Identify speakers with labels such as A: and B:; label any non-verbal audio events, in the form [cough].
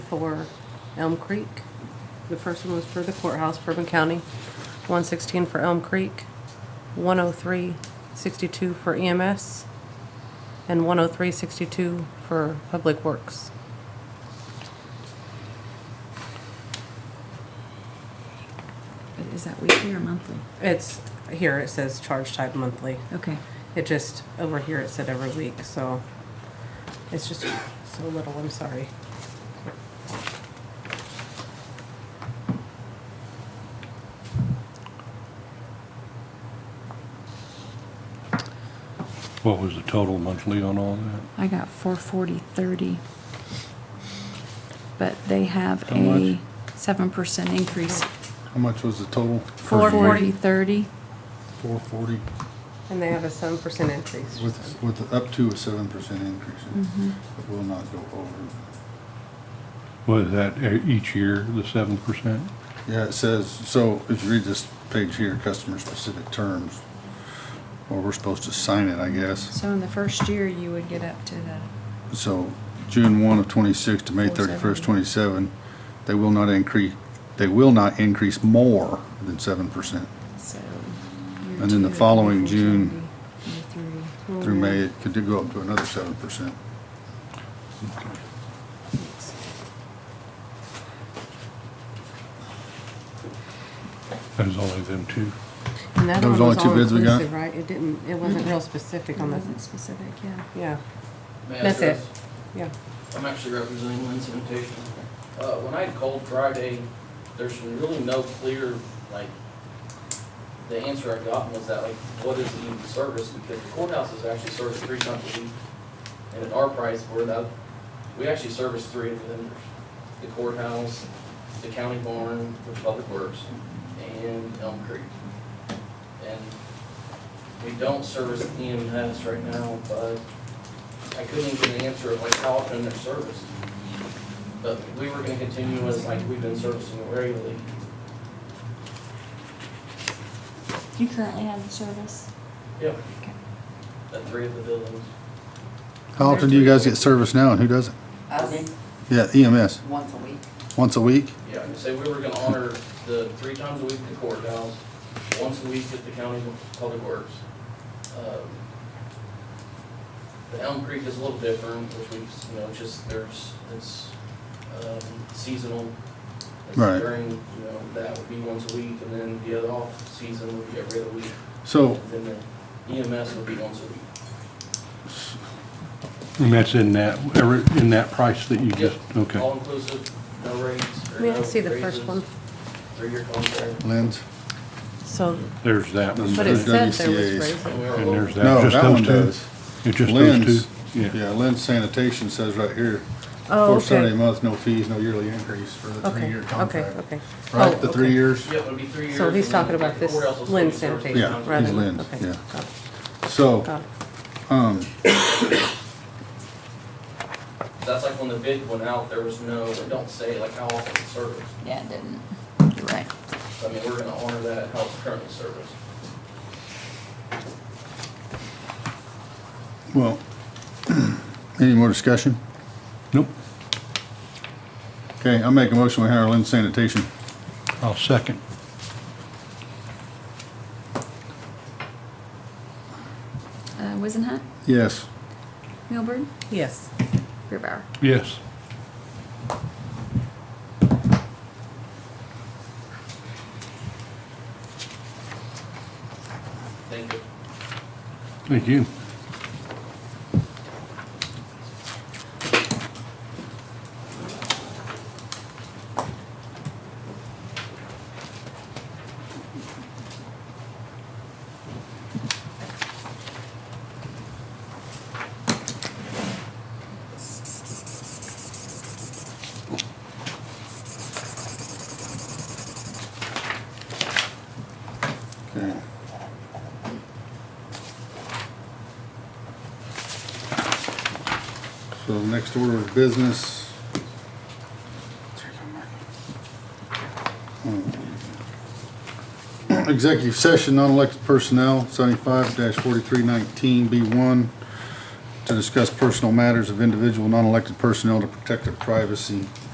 A: for Elm Creek. The first one was for the courthouse, Bourbon County, one sixteen for Elm Creek, one oh three sixty-two for EMS, and one oh three sixty-two for Public Works.
B: But Is that weekly or monthly?
A: It's, here it says charge type monthly.
B: Okay.
A: It just, over here it said every week, so it's just so little, I'm sorry.
C: What was the total monthly on all that?
B: I got four forty thirty. But they have
C: How
B: a
C: much?
B: seven percent increase.
D: How much was the total?
B: Four forty thirty.
D: Four forty,
A: And they have a seven percent increase.
D: with, with up to a seven percent increase. It
B: Mm-hmm.
D: will not go over.
C: Was that e- each year, the seven percent?
D: Yeah, it says, so if you read this page here, customer specific terms, or we're supposed to sign it, I guess.
B: So in the first year, you would get up to the,
D: So June one of twenty-six to May thirty-first,
B: 470.
D: twenty-seven, they will not increase, they will not increase more than seven percent.
B: so.
D: And then the following June-
B: Through
D: Through May, it could go up to another seven percent.
C: That was only them two.
A: And that
D: There was
A: one
D: only two bids we got?
A: all-inclusive, Right, it didn't, it wasn't real specific on
B: Wasn't
A: this,
B: specific, yeah.
A: yeah,
E: May I
A: that's it,
E: address?
A: yeah.
E: I'm actually representing Lynn's Sanitation. Uh, when I called Friday, there's really no clear, like, the answer I got was that, like, what is the even service? Because the courthouse is actually serviced three times a week. And at our price, we're that, we actually service three of the vendors. The courthouse, the county barn, which public works, and Elm Creek. And we don't service EMS right now, but I couldn't even answer like how often they're serviced. But we were gonna continue as like we've been servicing it regularly.
F: You currently have the service?
E: Yep.
B: Okay.
E: At three of the buildings.
D: How often do you guys get service now and who doesn't?
E: Me?
G: Us,
D: Yeah, EMS,
G: once a week.
D: once a week?
E: Yeah, and say we were gonna honor the three times a week at the courthouse, once a week at the county public works. Um, The Elm Creek is a little different, which we've, you know, just there's, it's um, seasonal. It's
D: Right.
E: During, you know, that would be once a week, and then the other off season would be every other week.
D: So,
E: Then the EMS would be once a week.
C: And that's in that, every- in that price that you just, okay.
E: All inclusive, no rates. or
A: May I
E: no
A: see the first
E: raises,
A: one?
E: Three-year contract.
D: Lynn's?
A: So,
C: There's that one,
A: but
C: and
A: it
D: Those
A: said there was
D: WCAs.
A: raises.
E: And we are
C: there's that,
D: No,
C: just
D: that
C: those
D: one
C: two?
D: does.
C: It's just those
D: Lynn's,
C: two?
D: yeah, Lynn's sanitation says right here,
A: Oh,
D: for seventy a
A: okay,
D: month, no fees, no yearly increase for the
A: okay,
D: three-year
A: okay,
D: contract.
A: okay. Oh,
D: Right, the
A: okay.
D: three years?
E: Yeah, it would be three years.
A: So he's
E: and then
A: talking about
E: the
A: this
E: courthouse will still
A: Lynn
E: be serviced
A: sanitation.
E: three times a
D: Yeah,
E: week.
D: he's Lynn's,
A: Okay,
D: yeah.
A: got it,
D: So,
A: got it. Oh.
D: um,
E: That's like when the bid went out, there was no, it don't say like how often it's serviced.
F: Yeah, it didn't. You're right.
E: I mean, we're gonna honor that how it's currently serviced.
D: well, [clears throat] any more discussion?
C: Nope,
D: Okay, I'll make a motion, we hire Lynn's sanitation.
C: I'll second.
B: Uh, Wizenhut,
D: Yes,
B: Milburn,
A: Yes,
B: Beerbauer.
C: Yes.
E: Thank you.
C: Thank you.
D: okay. So next order of business. Hmm. Executive session, non-elected personnel, seventy-five forty-three nineteen B one, to discuss personal matters of individual non-elected personnel to protect their privacy.